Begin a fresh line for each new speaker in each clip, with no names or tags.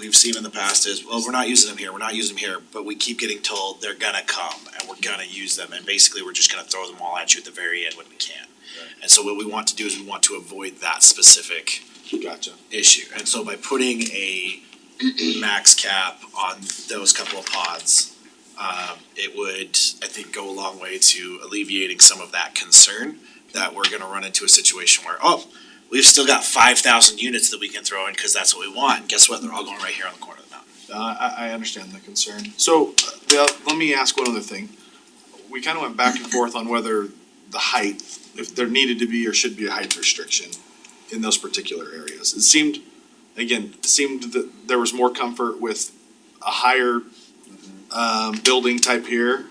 we've seen in the past is, well, we're not using them here, we're not using them here, but we keep getting told they're gonna come and we're gonna use them, and basically we're just gonna throw them all at you at the very end when we can. And so what we want to do is we want to avoid that specific
Gotcha.
issue, and so by putting a max cap on those couple of pods, um, it would, I think, go a long way to alleviating some of that concern that we're gonna run into a situation where, oh, we've still got five thousand units that we can throw in, cause that's what we want, and guess what, they're all going right here on the corner of the mountain.
Uh, I, I understand the concern. So, uh, the, let me ask one other thing. We kinda went back and forth on whether the height, if there needed to be or should be a height restriction in those particular areas. It seemed, again, it seemed that there was more comfort with a higher, um, building type here.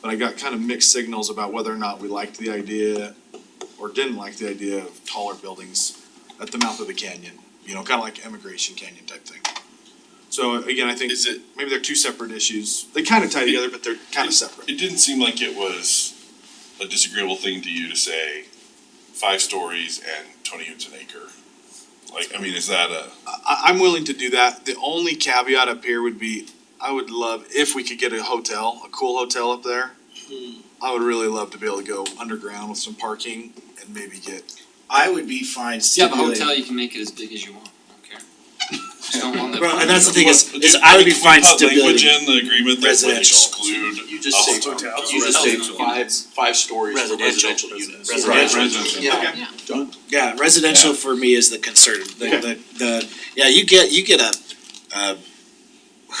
But I got kind of mixed signals about whether or not we liked the idea or didn't like the idea of taller buildings at the mouth of the canyon, you know, kinda like Emigration Canyon type thing. So again, I think
Is it-
maybe they're two separate issues. They kind of tie together, but they're kind of separate.
It didn't seem like it was a disagreeable thing to you to say five stories and twenty units an acre. Like, I mean, is that a,
I, I'm willing to do that. The only caveat up here would be, I would love if we could get a hotel, a cool hotel up there. I would really love to be able to go underground with some parking and maybe get,
I would be fine
If you have a
stipulating.
hotel, you can make it as big as you want, I don't care. Just don't want that.
Well, and that's the thing is,
What-
is I would be
we
fine
put Language
stipulating
in the agreement that would
residential.
exclude.
You just
a
say
hotel.
hotels.
You just say five-
five stories
residential units.
Right,
Residential.
residential.
Yeah.
Yeah, residential
Yeah.
for me is the concern, the, the, the, yeah, you get, you get a, uh,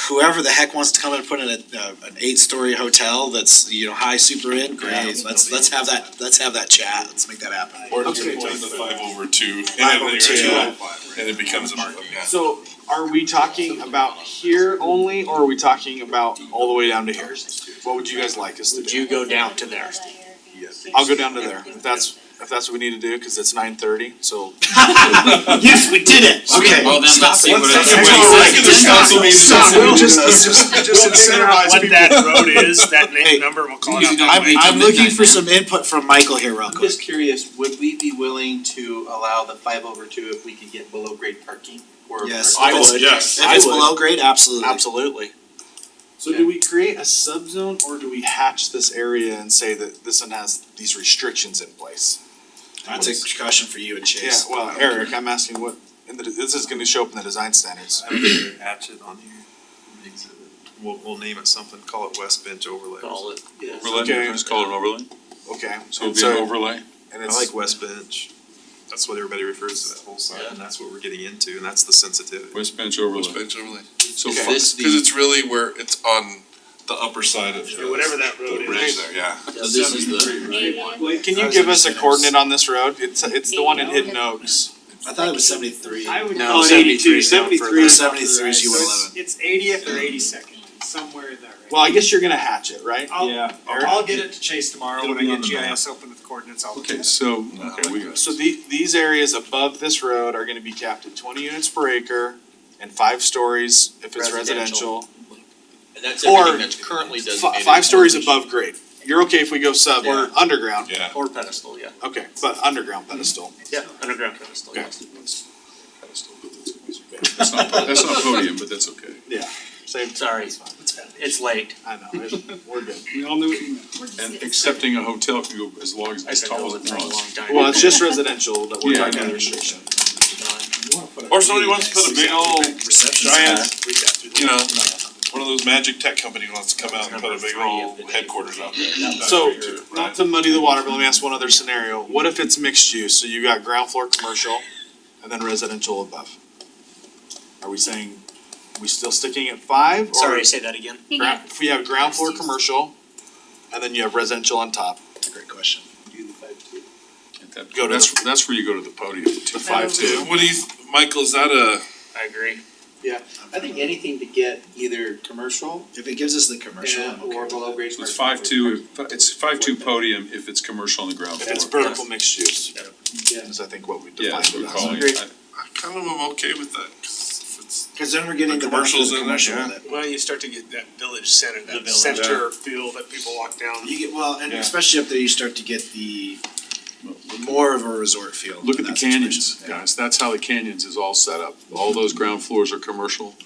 whoever the heck wants to come and put in a, a, an eight-story hotel that's, you know, high super in, great, let's, let's have that, let's have that chat, let's make that happen.
Or if
Okay.
you put the five over two. and
Five over
then
two.
you're- And it becomes a market.
so are we talking about here only, or are we talking about all the way down to here? What would you guys like us to
Would you
do?
go down to there?
I'll go down to there, if that's, if that's what we need to do, cause it's nine thirty, so.
Yes, we did it, okay.
Well, then let's see what
let's- let's
it is.
go
Wait,
right
is it
to
ten
meeting.
we'll just-
We'll incentivize
What
people.
that road is, that
Hey,
name number, we'll call it
you
out.
don't
that
I'm-
I'm,
way.
make-
I'm looking for some input from Michael here real
I'm
quick.
just curious, would we be willing to allow the five over two if we could get below grade parking? Or-
Yes.
I would.
Yes.
If it's
I would-
below grade, absolutely.
Absolutely. So do we create a subzone or do we hatch this area and say that this one has these restrictions in place?
That's a caution for you and
Yeah,
Chase. Uh,
well, Eric, I'm asking what, and the- this is gonna show up in the design standards.
I would either hatch it on here, makes it, we'll, we'll name it something, call it West Bench Overlay.
Call it.
Yes.
Overlay,
Okay.
just call it an overlay.
Okay, and
So it'll be an
so,
overlay.
and
I
it's.
like West Bench, that's what everybody refers to that whole side, and that's what we're getting into, and that's the sensitivity.
West bench overlay.
West bench overlay,
So
Okay.
far-
This
cause
the,
it's really where it's on
the upper side of.
Yeah, Whatever that road
The
is.
ridge there, yeah.
so this is the, right?
Can you give us a coordinate on this road? It's, it's the one in Hidden Oaks.
I thought it was seventy-three.
I would
No,
call it
73
eighty-two,
is down
seventy-three.
further.
is off to
73
the
is
right,
you
so
at
it's-
11.
It's eightieth or eighty-second, somewhere in there.
Well, I guess you're gonna hatch it, right?
I'll-
Yeah.
I'll, I'll get it to Chase tomorrow, when I
It'll be on
get
the
GIS open with coordinates, I'll.
Okay, so,
Okay, we got.
So the, these areas above this road are gonna be capped at twenty units per acre and five stories if it's
Residential.
residential.
And that's
Or-
everything that's currently
Fi-
designated.
five stories
as-
above grade. You're okay if we go sub or underground?
Yeah.
Or pedestal, yeah. Mm-hmm.
Okay, but underground pedestal.
Yeah, underground pedestal,
Okay.
yes.
That's not, that's not podium, but that's okay.
Yeah, same.
Sorry.
It's fine.
It's late.
I know, it- we're good.
we all knew what you meant.
And accepting a hotel can go as long as,
I've
as
been
tall
going
as it
for a
wants.
long time.
Well, it's just residential that we're
Yeah.
talking about restriction.
Or somebody wants to put a big old giant, you know, one of those magic tech company wants to come out and put a big old headquarters out there. That'd
So,
be great, right?
not to muddy the water, but let me ask one other scenario. What if it's mixed use? So you got ground floor commercial and then residential above? Are we saying, we still sticking at five or?
Sorry, say that again.
gra- If we have ground floor commercial and then you have residential on top,
Great question.
At that-
go to
That's, that's where you go to the podium.
the five two.
What do you, Michael, is that a?
I agree.
I think anything to get either commercial
If it gives us the commercial, I'm okay
or
with
below grade.
It's five two, it's five two podium if it's commercial on the ground
If it's
floor.
vertical mixed use,
Yeah.
is I think what we
Yeah,
defined
that's what
it
we're
as.
calling
Agree.
it. I-
I kind of am okay with that, 'cause if it's
it. Cause then we're getting
The
the benefit of
commercials
the
in there,
commercial
yeah.
with it.
Well, you start to get that village center, that center feel that people walk down.
You get, well, and
Yeah.
especially up there, you start to get the more of a resort feel.
Look
in
at the
that situation.
canyons,
Yeah.
guys, that's how the canyons is all set up, all those ground floors are commercial,